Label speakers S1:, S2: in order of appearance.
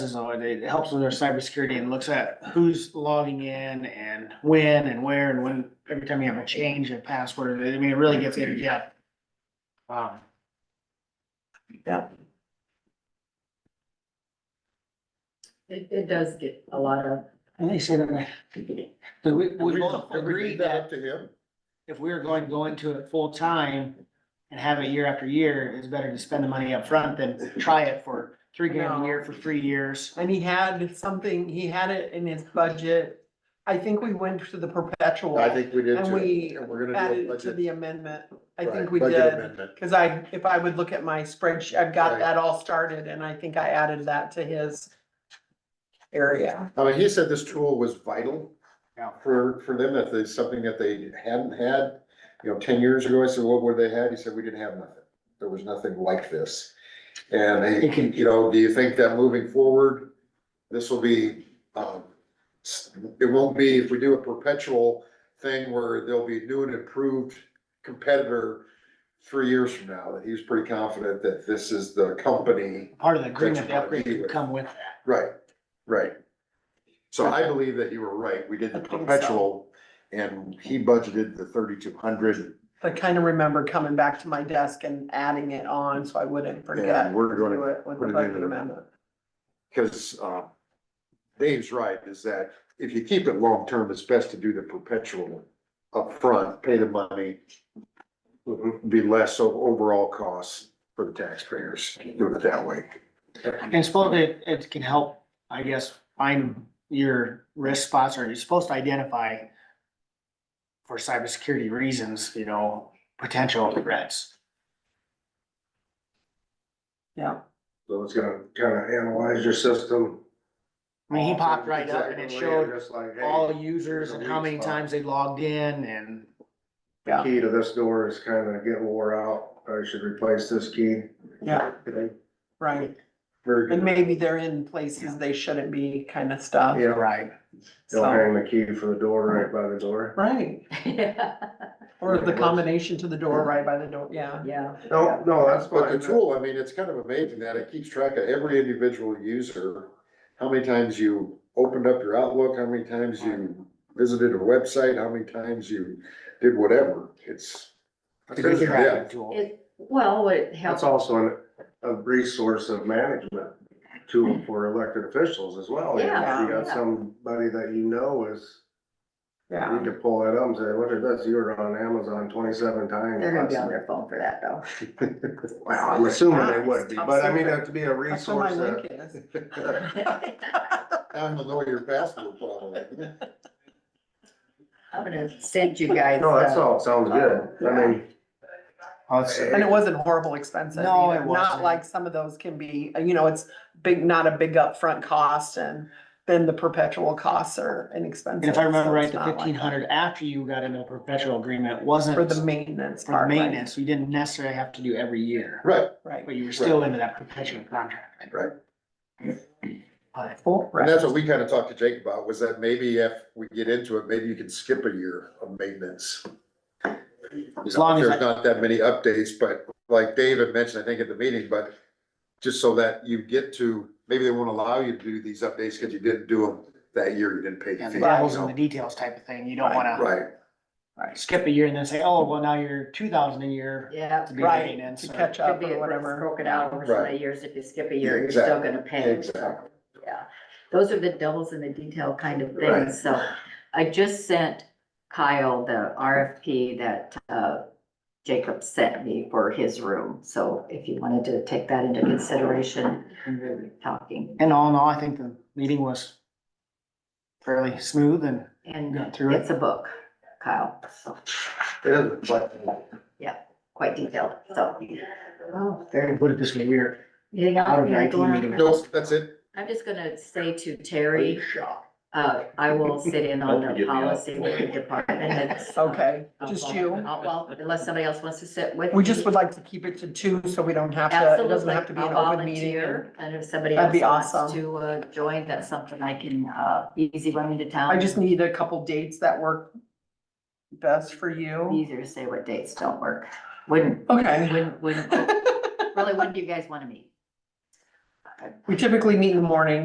S1: So it- it helps with their cybersecurity and looks at who's logging in and when and where and when, every time you have a change in password, I mean, it really gets in depth. Um,
S2: It, it does get a lot of,
S1: and they say that, so we, we both
S3: Did we
S1: agreed
S3: leave that
S1: that
S3: up to him?
S1: if we were going to go into it full time and have it year after year, it's better to spend the money up front than try it for three grand a year for three years.
S4: And he had something, he had it in his budget. I think we went to the perpetual.
S3: I think we did
S4: And
S3: too.
S4: we
S3: And we're gonna do
S4: Added
S3: a
S4: it to
S3: budget.
S4: the amendment. I
S3: right,
S4: think we
S3: budget
S4: did.
S3: amendment.
S4: Cause I, if I would look at my spreadsheet, I've got
S3: Right.
S4: that all started and I think I added that to his area.
S3: I mean, he said this tool was vital
S1: Yeah.
S3: for, for them, if there's something that they hadn't had, you know, ten years ago, I said, what would they had? He said, we didn't have nothing. There was nothing like this. And,
S1: It
S3: he-
S1: can-
S3: you know, do you think that moving forward, this will be, um, s- it won't be, if we do a perpetual thing where there'll be new and improved competitor three years from now, that he's pretty confident that this is the company
S1: Part of the agreement,
S3: That's
S1: the
S3: what
S1: upgrade
S3: we
S1: could
S3: would-
S1: come with that.
S3: Right, right. So I believe that you were right. We did the
S4: I think so.
S3: perpetual and he budgeted the thirty-two hundred.
S4: I kind of remember coming back to my desk and adding it on so I wouldn't forget.
S3: And we're
S4: to
S3: gonna,
S4: do it With the
S3: put it in
S4: budget
S3: the-
S4: amendment.
S3: cause, uh, Dave's right, is that if you keep it long-term, it's best to do the perpetual upfront, pay the money. Be less of overall costs for the taxpayers, do it that way.
S1: And it's supposed, it, it can help, I guess, find your risk spots or you're supposed to identify for cybersecurity reasons, you know, potential threats.
S4: Yeah.
S5: So it's gonna kinda analyze your system.
S1: I mean, he popped right up and it
S5: Exactly,
S1: showed
S5: Just like,
S1: all
S5: hey,
S1: users and how many
S5: Hey,
S1: times they logged in and
S5: the key to this door is kinda getting wore out, I should replace this key.
S4: Yeah,
S5: Very
S4: right. And
S5: good,
S4: maybe they're in places they shouldn't be kind of stuff.
S5: yeah,
S1: right.
S5: don't
S4: so-
S5: hang the key for the door right by the door.
S4: Right,
S2: yeah,
S4: or the
S3: Yeah, it was.
S4: combination to the door right by the door, yeah.
S2: yeah.
S5: No, no, that's
S3: But
S5: fine.
S3: the tool, I mean, it's kind of amazing that it keeps track of every individual user, how many times you opened up your Outlook, how many times you visited a website, how many times you did whatever, it's.
S1: It's a good tracking tool.
S2: It, well, it helps,
S5: That's also an, a resource of management tool for elected officials as well. You know, If you
S2: Yeah,
S5: got
S2: yeah.
S5: somebody that you know is, you
S4: Yeah,
S5: can pull that up and say, look at this, you were on Amazon twenty-seven times.
S2: they're gonna be
S5: last
S2: on
S5: year."
S2: their phone for that though.
S5: Well, I'm assuming they would be,
S4: Top
S5: but I mean,
S4: secret.
S5: that'd be a
S4: that's what my
S5: resource
S4: link
S5: that,
S4: is.
S3: I don't know your password probably.
S2: I'm gonna send you guys.
S5: no, that's
S2: uh,
S5: all, sounds good, I mean.
S4: And it wasn't horrible expensive
S1: No, it
S4: either, not
S1: wasn't.
S4: like some of those can be, you know, it's big, not a big upfront cost and then the perpetual costs are inexpensive.
S1: And if I remember
S4: so
S1: right,
S4: it's
S1: the
S4: not like
S1: fifteen hundred after you got into a perpetual agreement
S4: that.
S1: wasn't
S4: For the maintenance
S1: for
S4: part, right?
S1: maintenance. You didn't necessarily have to do every year,
S3: Right,
S4: Right,
S1: but you were still into that perpetual contract.
S3: Right.
S1: But
S3: and that's
S4: correct,
S3: what we kind of talked to Jake about, was that maybe if we get into it, maybe you can skip a year of maintenance.
S1: As long as I-
S3: There's not that many updates, but like David mentioned, I think at the meeting, but just so that you get to, maybe they won't allow you to do these updates because you didn't do them that year, you didn't pay
S1: Yeah,
S3: the fee.
S1: the
S3: you
S1: devil's in the
S3: know?
S1: details type of thing. You don't wanna
S3: Right,
S1: skip a year and then say, oh, well, now you're two thousand a year.
S2: Yeah.
S1: to be
S4: right,
S1: maintenance or-
S4: to catch
S2: Could
S4: up
S2: be
S4: or whatever.
S2: broken out over so many
S3: Right.
S2: years. If you skip a year, you're still
S3: Exactly,
S2: gonna pay.
S3: exactly.
S2: Yeah, those are the devils in the detail kind of
S3: Right.
S2: things, so I just sent Kyle the RFP that, uh, Jacob sent me for his room, so if you wanted to take that into consideration, when we're talking,
S1: And all in all, I think the meeting was fairly smooth and
S2: and
S1: Got through it.
S2: it's a book, Kyle, so
S5: It is, but
S2: quite detailed, so. Oh,
S1: I
S2: very.
S1: put it this way, we were
S2: Anything else?
S1: Out of
S2: You gotta go
S1: 19
S2: on.
S1: minutes.
S3: no, that's it.
S2: I'm just gonna say to Terry, uh, I will sit in on the policy department. It's, uh,
S4: Okay,
S2: I'll-
S4: just you.
S2: I'll- Well, unless somebody else wants to sit with.
S4: We just
S2: me.
S4: would like to keep it to two, so we don't have to, it doesn't
S2: Absolutely,
S4: have to be
S2: I'll
S4: an open meeting. and-
S2: volunteer, and if somebody
S4: That'd
S2: else
S4: be
S2: wants
S4: awesome.
S2: to, uh, join, that's something I can, uh, easy run into town.
S4: I just need a couple dates that work best for you.
S2: Easier to say what dates don't work. When,
S4: Okay.
S2: when, when, really, when do you guys wanna meet?
S4: We typically meet in the morning.